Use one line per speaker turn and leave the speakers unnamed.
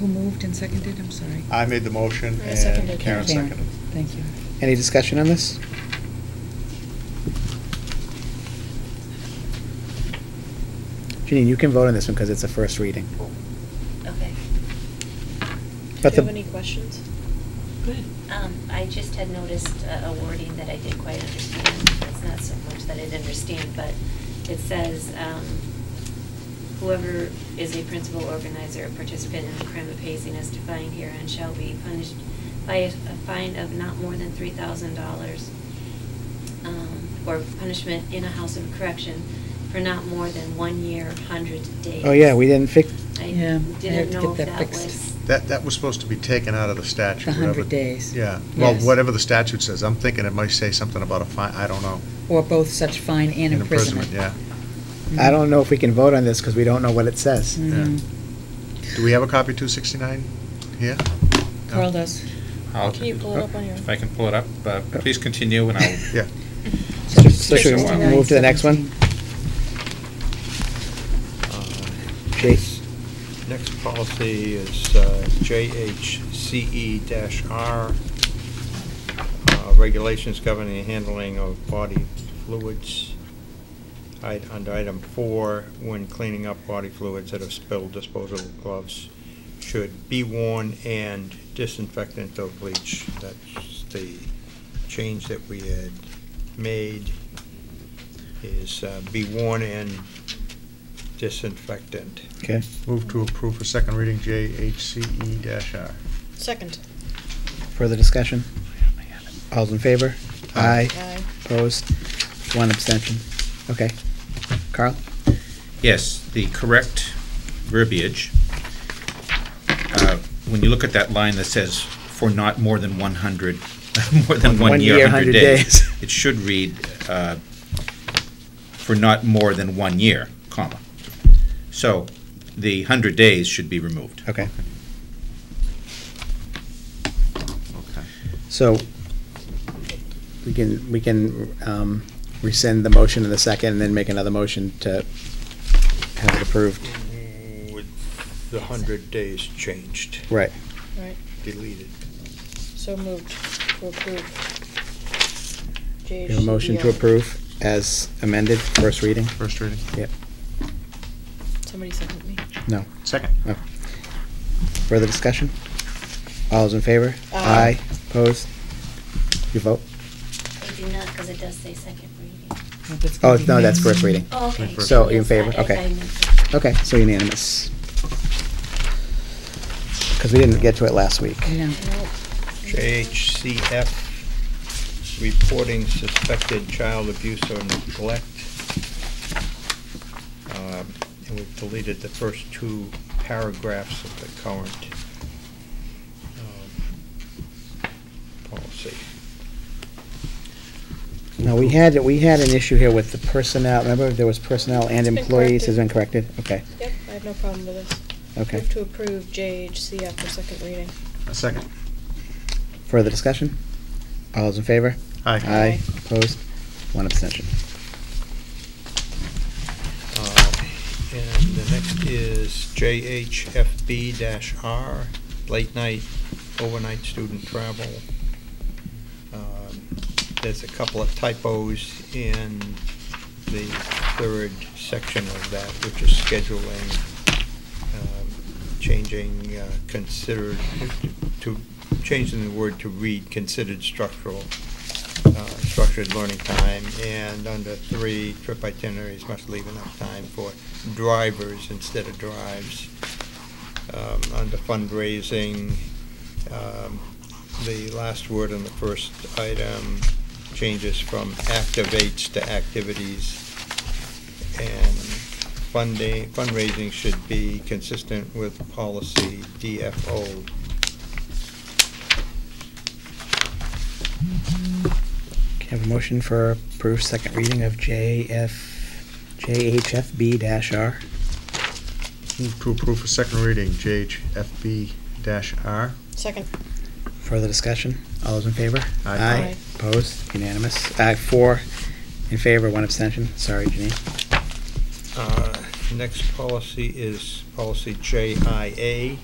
Who moved and seconded? I'm sorry.
I made the motion
I seconded.
and Karen seconded.
Thank you.
Any discussion on this? Janine, you can vote on this one because it's a first reading.
Okay.
But
Do
the-
you have any questions?
Um, I just had noticed uh, a wording that I didn't quite understand. It's not so much that I didn't understand, but it says, um, whoever is a principal organizer or participant in the crime of hazing as defined herein shall be punished by a a fine of not more than three thousand dollars um, or punishment in a house of correction for not more than one year, hundred days.
Oh, yeah, we didn't fix,
Yeah,
I
I have
didn't
to
know
get
if
that
that
fixed.
was.
That, that was supposed to be taken out of the statute.
The
whatever-
100 days.
Yeah, well,
Yes.
whatever the statute says, I'm thinking it might say something about a fine, I don't know.
Or both such fine and
An
imprisonment. Mm-hmm.
Yeah.
I don't know if we can vote on this because we don't know what it says.
Mhm.
Do we have a copy of 269 here? No?
Carl does.
I'll-
Can you pull it up on your?
Oh.
If I can pull it up, uh, please continue, and I'll,
Yeah,
So so should we move to the next one?
69,
Jase?
Uh, Next policy is uh, JHCE-R, E uh, regulations governing the handling of body fluids. I- Under item four, when cleaning up body fluids that have spilled, disposable gloves should be worn and disinfectant or bleach. That's the change that we had made, is uh, be worn and disinfectant.
Okay.
move to approve for second reading E JHCE-R.
Second.
Further discussion? All's in favor?
Aye.
Aye.
Opposed? One abstention. Okay. Carl?
yes, the correct verbiage, uh, when you look at that line that says, "For not more than 100, more than one year, 100 days," it should read, uh, "For not more than one year, comma." So the 100 days should be removed.
Okay.
Okay.
So we can, we can um, rescind the motion in the second and then make another motion to have it approved.
Mm, With the hundred days changed,
Right.
All right,
deleted.
so moved to approve.
We have a motion to
JHCPR.
approve as amended, first reading?
First reading?
Yep.
Somebody second me.
No.
Second.
No. Further discussion? All those in favor?
Aye.
Opposed? You vote?
I do not, because it does say second reading.
I hope it's
Oh,
gonna be
no, that's
next.
first reading.
Oh, okay.
First.
So, in
Yes,
favor?
I- I-
Okay.
I meant-
Okay, so unanimous. Because we didn't get to it last week.
No.
Nope.
JHCF, reporting suspected child abuse or neglect. Um, And we've deleted the first two paragraphs of the current um, policy.
No, we had, we had an issue here with the personnel, remember, there was personnel and
It's been
employees, has been
corrected.
corrected? Okay,
Yep, I have no problem with this.
okay.
Move to approve JHCF for second reading.
A second.
Further discussion? All those in favor?
Aye.
Aye, opposed, one abstention.
Uh, And the next is JHFB-R, late night, overnight student travel. Um, There's a couple of typos in the third section of that, which is scheduling, um, changing uh, considered, to, changing the word to read considered structural uh, structured learning time, and under three, trip itineraries must leave enough time for drivers instead of drives. Um, Under fundraising, um, the last word in the first item changes from activates to activities. And funding, fundraising should be consistent with policy DFO
Can I have a motion for approved second reading of JF, JHFB dash R?
Move to approve for second reading JHFB-R.
Second.
Further discussion? All those in favor?
Aye.
Aye.
Opposed? Unanimous. Uh, Four in favor, one abstention. Sorry, Janine.
Uh, Next policy is policy JIA,